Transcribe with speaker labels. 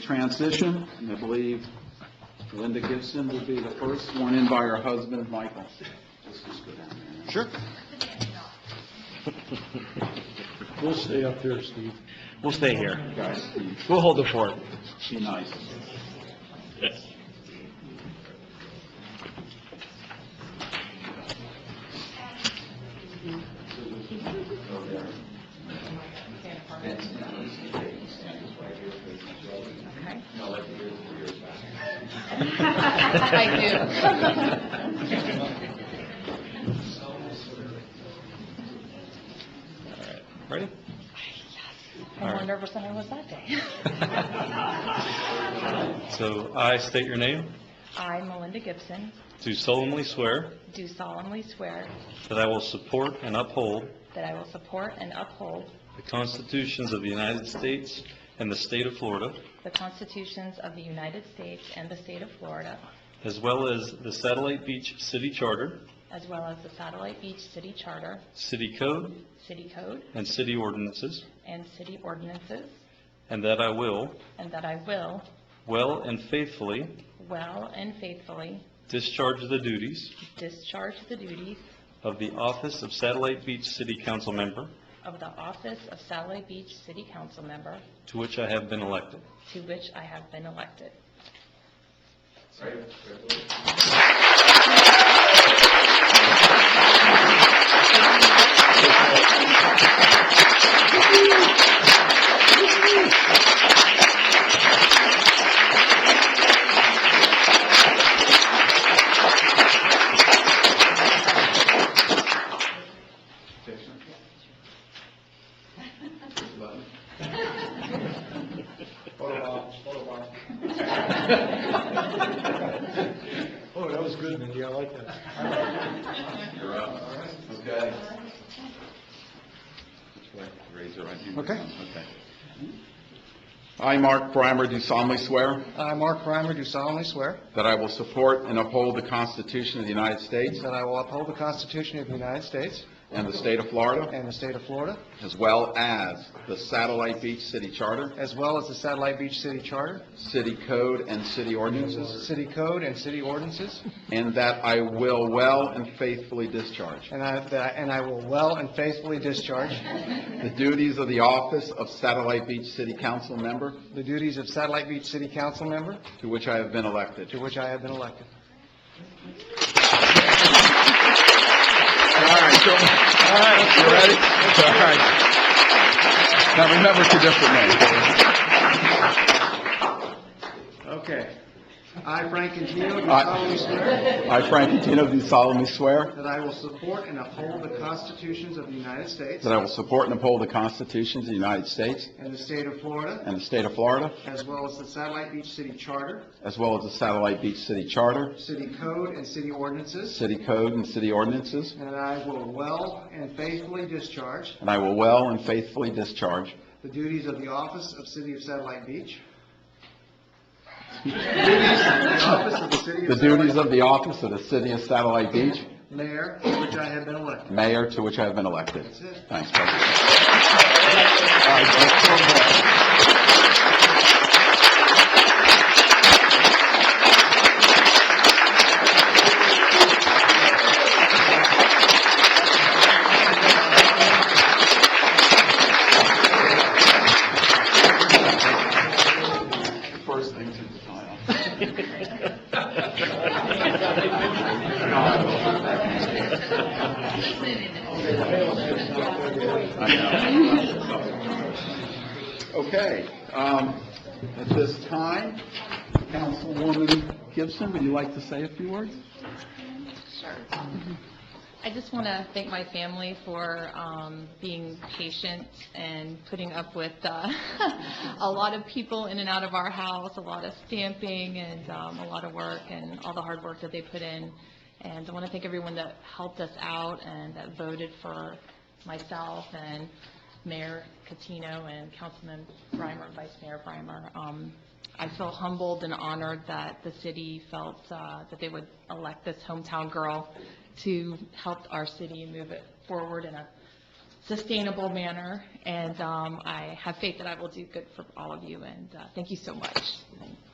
Speaker 1: transition, and I believe Linda Gibson will be the first, sworn in by her husband, Michael. Let's just go down there.
Speaker 2: Sure.
Speaker 3: We'll stay up there, Steve.
Speaker 2: We'll stay here.
Speaker 1: Guys, be-
Speaker 2: We'll hold the fort.
Speaker 1: be nice.
Speaker 4: I do.
Speaker 2: Ready?
Speaker 4: I'm more nervous than I was that day.
Speaker 5: So I state your name,
Speaker 4: I, Melinda Gibson,
Speaker 5: do solemnly swear
Speaker 4: do solemnly swear
Speaker 5: that I will support and uphold
Speaker 4: that I will support and uphold
Speaker 5: the constitutions of the United States and the state of Florida,
Speaker 4: the constitutions of the United States and the state of Florida,
Speaker 5: as well as the Satellite Beach City Charter,
Speaker 4: as well as the Satellite Beach City Charter,
Speaker 5: City Code,
Speaker 4: City Code,
Speaker 5: and city ordinances,
Speaker 4: and city ordinances,
Speaker 5: and that I will,
Speaker 4: and that I will,
Speaker 5: well and faithfully,
Speaker 4: well and faithfully,
Speaker 5: discharge the duties
Speaker 4: discharge the duties
Speaker 5: of the office of Satellite Beach City Council Member,
Speaker 4: of the office of Satellite Beach City Council Member,
Speaker 5: to which I have been elected.
Speaker 4: to which I have been elected.
Speaker 3: Oh, Oh, that was good, Mindy, I like that.
Speaker 1: You're up. Okay. Raise your right hand.
Speaker 3: Okay.
Speaker 1: Okay. I, Mark Brimer, do solemnly swear
Speaker 3: I, Mark Reimer, do solemnly swear
Speaker 1: that I will support and uphold the Constitution of the United States
Speaker 3: that I will uphold the Constitution of the United States
Speaker 1: and the state of Florida,
Speaker 3: and the state of Florida,
Speaker 1: as well as the Satellite Beach City Charter,
Speaker 3: as well as the Satellite Beach City Charter,
Speaker 1: City Code, and City Ordinances,
Speaker 3: city code, and city ordinances,
Speaker 1: and that I will well and faithfully discharge
Speaker 3: and I, that- and I will well and faithfully discharge
Speaker 1: the duties of the office of Satellite Beach City Council Member,
Speaker 3: the duties of Satellite Beach City Council Member,
Speaker 1: to which I have been elected.
Speaker 3: to which I have been elected.
Speaker 1: All right, so, all right, you ready? All right. Now, remember, it's a different
Speaker 3: Okay. I, Frank Antino, do
Speaker 1: I-
Speaker 3: solemnly swear
Speaker 1: name. I, Frank Catino, do solemnly swear
Speaker 3: that I will support and uphold the constitutions of the United States
Speaker 1: that I will support and uphold the constitutions of the United States
Speaker 3: and the state of Florida,
Speaker 1: and the state of Florida,
Speaker 3: as well as the Satellite Beach City Charter,
Speaker 1: as well as the Satellite Beach City Charter,
Speaker 3: city code, and city ordinances,
Speaker 1: city code, and city ordinances,
Speaker 3: and I will well and faithfully discharge
Speaker 1: and I will well and faithfully discharge
Speaker 3: the duties of the office of City of Satellite Beach. The office of the City
Speaker 1: the
Speaker 3: of Satellite
Speaker 1: duties of the office of the City of Satellite Beach
Speaker 3: Mayor, to which I have been elected.
Speaker 1: Mayor, to which I have been elected.
Speaker 3: That's it.
Speaker 1: Thanks, President. All right, let's go ahead. First thing to file. Uh, Okay, um, at this time, Councilwoman Gibson, would you like to say a few words?
Speaker 4: Sure. I just want to thank my family for um, being patient and putting up with uh, a lot of people in and out of our house, a lot of stamping and um, a lot of work and all the hard work that they put in. And I want to thank everyone that helped us out and that voted for myself and Mayor Catino and Councilman Brimer, Vice Mayor Brimer. Um, I feel humbled and honored that the city felt uh, that they would elect this hometown girl to help our city move it forward in a sustainable manner, and um, I have faith that I will do good for all of you, and uh, thank you so much.